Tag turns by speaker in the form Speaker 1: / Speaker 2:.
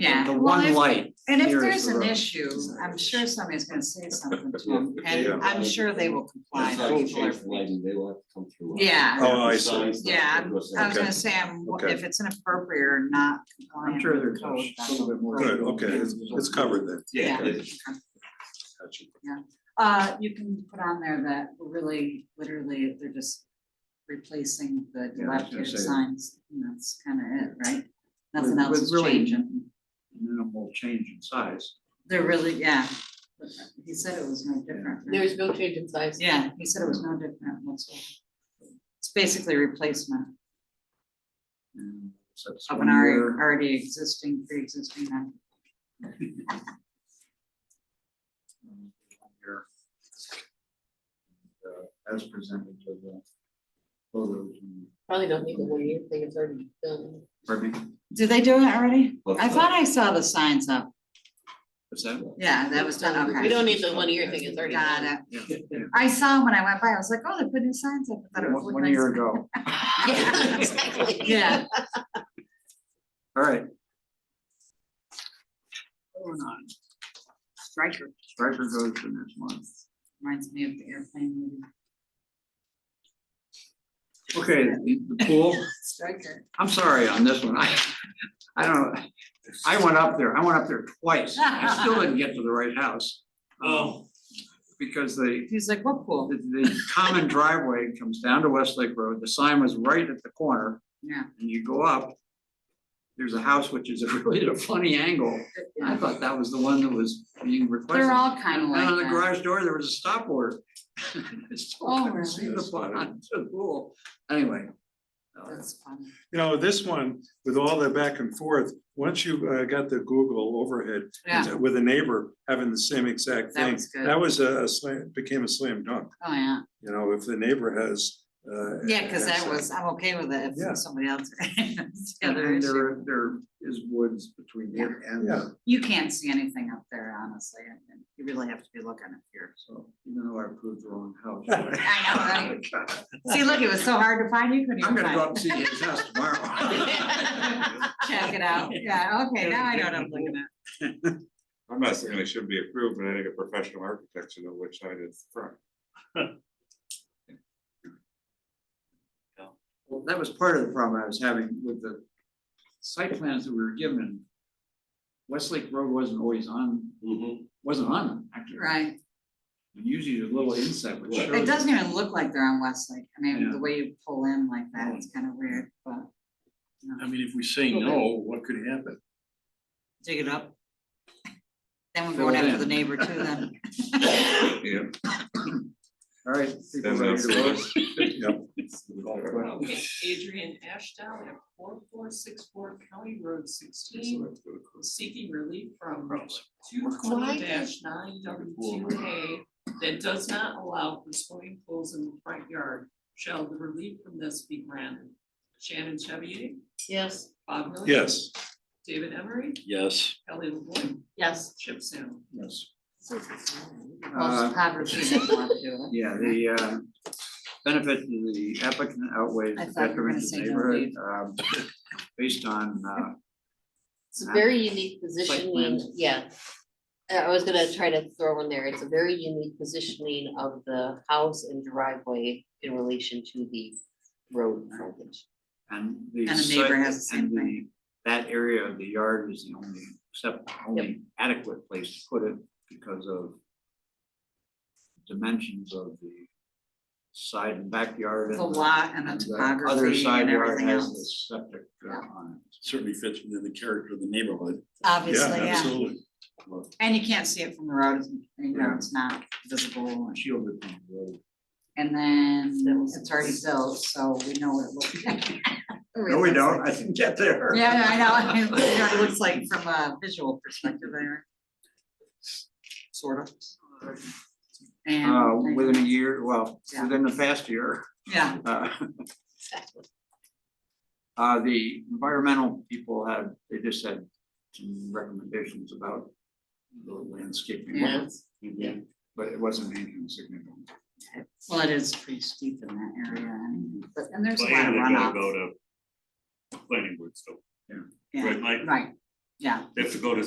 Speaker 1: Yeah.
Speaker 2: The
Speaker 1: well,
Speaker 2: one
Speaker 1: if-
Speaker 2: light.
Speaker 1: And if
Speaker 2: here
Speaker 1: there's
Speaker 2: is the
Speaker 1: an
Speaker 2: road.
Speaker 1: issue, I'm sure somebody's gonna say something to
Speaker 3: Yeah.
Speaker 1: them, and
Speaker 3: Yeah.
Speaker 1: I'm sure they will comply.
Speaker 3: It's like
Speaker 1: People
Speaker 3: you
Speaker 1: are-
Speaker 3: change the lighting, they will have to come through.
Speaker 1: Yeah.
Speaker 4: Oh, I
Speaker 3: The
Speaker 4: see.
Speaker 3: signs, the-
Speaker 1: Yeah, I was
Speaker 3: Okay.
Speaker 1: gonna say, I'm-
Speaker 4: Okay.
Speaker 1: if it's inappropriate or not
Speaker 2: I'm
Speaker 1: compliant
Speaker 2: sure
Speaker 1: with
Speaker 2: there's
Speaker 1: the code.
Speaker 2: a little bit more.
Speaker 4: Good, okay, it's it's covered then.
Speaker 1: Yeah.
Speaker 3: Yeah.
Speaker 4: Gotcha.
Speaker 1: Uh, you can put on there that we're really, literally, they're just replacing the
Speaker 2: Yeah, I was gonna
Speaker 1: dilapidated
Speaker 2: say that.
Speaker 1: signs, and that's kind of it, right?
Speaker 2: With-
Speaker 1: Nothing else
Speaker 2: with
Speaker 1: is
Speaker 2: really-
Speaker 1: changing,
Speaker 2: Minimal change in size.
Speaker 1: they're really, yeah, he said it was no different. right?
Speaker 5: There's no change in size.
Speaker 1: Yeah, he said it was no different whatsoever. It's basically replacement
Speaker 2: and so it's
Speaker 1: of
Speaker 2: one
Speaker 1: an already,
Speaker 2: year.
Speaker 1: already existing, pre-existing. one.
Speaker 2: um, one year. And, uh, As presented to the. photos and-
Speaker 5: Probably don't need the one year thing, it's already done.
Speaker 2: Pardon me?
Speaker 1: Did they do it already?
Speaker 3: What's
Speaker 1: I thought
Speaker 3: that?
Speaker 1: I saw the signs up.
Speaker 2: What's that?
Speaker 1: Yeah, that was done, okay.
Speaker 5: We don't need the one year thing, it's already
Speaker 1: Got
Speaker 5: done.
Speaker 1: it.
Speaker 2: Yeah, yeah.
Speaker 1: I saw when I went by, I was like, oh, they put new signs up. I thought it was
Speaker 2: One
Speaker 1: really nice.
Speaker 2: one year ago.
Speaker 5: Yeah, exactly.
Speaker 1: Yeah,
Speaker 2: All right. Moving on.
Speaker 1: striker
Speaker 2: Striker goes to next month.
Speaker 1: reminds me of the airplane movie.
Speaker 2: Okay, the the pool.
Speaker 1: Striker.
Speaker 2: I'm sorry on this one. I, I don't, I went up there, I went up there twice. I still didn't get to the right house. Oh. Because the,
Speaker 1: He's like, what pool?
Speaker 2: the, the common driveway comes down to Westlake Road. The sign was right at the corner
Speaker 1: Yeah.
Speaker 2: and you go up. There's a house which is really at a funny angle. I thought that was the one that was being requested.
Speaker 1: They're all kind of
Speaker 2: And
Speaker 1: like
Speaker 2: on the
Speaker 1: that.
Speaker 2: garage door, there was a stop order. I still
Speaker 1: Oh,
Speaker 2: couldn't see
Speaker 1: really?
Speaker 2: the bottom to the pool. Anyway. uh,
Speaker 1: That's funny.
Speaker 4: You know, this one, with all the back and forth, once you uh, got the Google overhead
Speaker 1: Yeah,
Speaker 4: with a neighbor having the same exact
Speaker 1: That
Speaker 4: thing,
Speaker 1: was good.
Speaker 4: that was a a slam, became a slam dunk.
Speaker 1: oh, yeah.
Speaker 4: You know, if the neighbor has. uh,
Speaker 1: Yeah, because that
Speaker 4: access.
Speaker 1: was, I'm okay with it
Speaker 4: Yeah.
Speaker 1: if somebody else. It's the
Speaker 2: And
Speaker 1: other
Speaker 2: then
Speaker 1: issue.
Speaker 2: there, there is woods between here and,
Speaker 4: Yeah.
Speaker 1: You can't see anything up there, honestly. and- and You really have to be looking up here.
Speaker 2: so even though I proved the wrong house.
Speaker 1: I know, See, look, it was so hard to find, you couldn't
Speaker 2: I'm
Speaker 1: even
Speaker 2: gonna go up
Speaker 1: find
Speaker 2: and
Speaker 1: it.
Speaker 2: see his house tomorrow.
Speaker 1: Check it out. Yeah, okay, now I know what I'm looking at.
Speaker 6: I'm not saying it should be approved, but I think a professional architect should know which side it's from.
Speaker 2: Well, that was part of the problem I was having with the site plans that we were given. Westlake Road wasn't always on,
Speaker 3: Mhm.
Speaker 2: wasn't on, them, actually.
Speaker 1: Right.
Speaker 2: Usually there's a little inset which
Speaker 3: Right.
Speaker 2: shows.
Speaker 1: It doesn't even look like they're on Westlake. I mean,
Speaker 2: Yeah. Mm.
Speaker 1: the way you pull in like that, it's kind of weird, but. you know,
Speaker 7: I mean, if we say no, what could happen?
Speaker 1: Dig it up. Then we're
Speaker 2: Fill
Speaker 1: going
Speaker 2: it
Speaker 1: after the
Speaker 2: in.
Speaker 1: neighbor too then.
Speaker 3: Mm-hmm.
Speaker 6: Yeah.
Speaker 2: All right. people
Speaker 6: Then
Speaker 2: ready
Speaker 6: that's
Speaker 2: to
Speaker 6: the worst.
Speaker 2: vote?
Speaker 5: Okay, Adrian Ashdown at four four six four County Road sixteen, seeking relief from two
Speaker 2: Why
Speaker 5: twenty
Speaker 2: did-
Speaker 5: nine W two A that does not allow for swimming pools in the front yard. Shall the relief from this be granted? Shannon Chevy? Yes. Bob Miller?
Speaker 4: Yes,
Speaker 5: David Emery?
Speaker 7: Yes.
Speaker 5: Kelly LeBoy? Yes. Chip Salem?
Speaker 2: Yes.
Speaker 1: Most
Speaker 2: Uh,
Speaker 1: poverty doesn't want to do it.
Speaker 2: Yeah, the uh, benefit to the applicant outweighs
Speaker 1: I
Speaker 2: the
Speaker 1: thought you were
Speaker 2: detriment
Speaker 1: gonna
Speaker 2: to
Speaker 1: say
Speaker 2: the
Speaker 1: no
Speaker 2: neighborhood, um, based on, uh,
Speaker 5: It's
Speaker 2: Uh,
Speaker 5: a very unique positioning,
Speaker 2: plan.
Speaker 5: yeah. Uh, I I was gonna try to throw in there, it's a very unique positioning of the house and driveway in relation to the road frontage.
Speaker 2: and the.
Speaker 1: And the
Speaker 2: site-
Speaker 1: neighbor has the
Speaker 2: and
Speaker 1: same thing.
Speaker 2: That area of the yard is the only, except only adequate place to put it because of dimensions of the side and backyard. and
Speaker 1: The lot and the
Speaker 2: Other
Speaker 1: topography
Speaker 2: side
Speaker 1: and
Speaker 2: yard
Speaker 1: everything
Speaker 2: has the
Speaker 1: else.
Speaker 2: septic uh, on
Speaker 7: Certainly fits within the character of the neighborhood.
Speaker 4: yeah,
Speaker 1: Obviously, yeah.
Speaker 4: absolutely.
Speaker 1: And you can't see it from the road, it's- you know,
Speaker 2: Yeah.
Speaker 1: it's not visible.
Speaker 2: it, shielded from the road.
Speaker 1: And then it's already built, so we know what it looks like.
Speaker 2: No, we don't, I didn't get there.
Speaker 1: Yeah, I know, I know, it looks like from a visual perspective there. Sort of. And.
Speaker 2: Uh, within a year, well,
Speaker 1: Yeah.
Speaker 2: within the past year.
Speaker 1: Yeah,
Speaker 2: uh, Uh, the environmental people had, they just had some recommendations about the landscaping,
Speaker 1: Yeah.
Speaker 5: Yes.
Speaker 2: Mhm. but it wasn't anything significant.
Speaker 1: well, it is pretty steep in that area, and, but, and there's a lot of
Speaker 6: Planning, they gotta
Speaker 1: runoff.
Speaker 6: go to planning board still.
Speaker 1: Yeah,
Speaker 6: Right, Mike?
Speaker 1: Right,
Speaker 8: Yeah.
Speaker 4: They have to go to